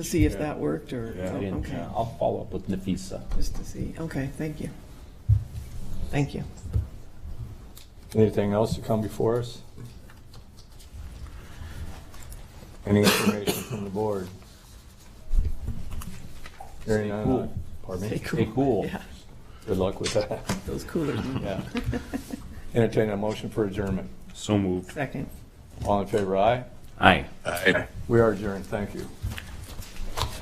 to see if that worked or, I oh, didn't- uh, okay, I'll follow up with Nafisa. just to see, okay, thank you. Thank you. Anything else to come before us? Any information from the board? Hearing Stay none, cool. I- Pardon Stay me? cool. cool. Yeah, Good luck with that. Those coolers, Yeah. Entertain a motion for adjournment. So moved. second. All in favor, aye? Aye. We are adjourned, thank you.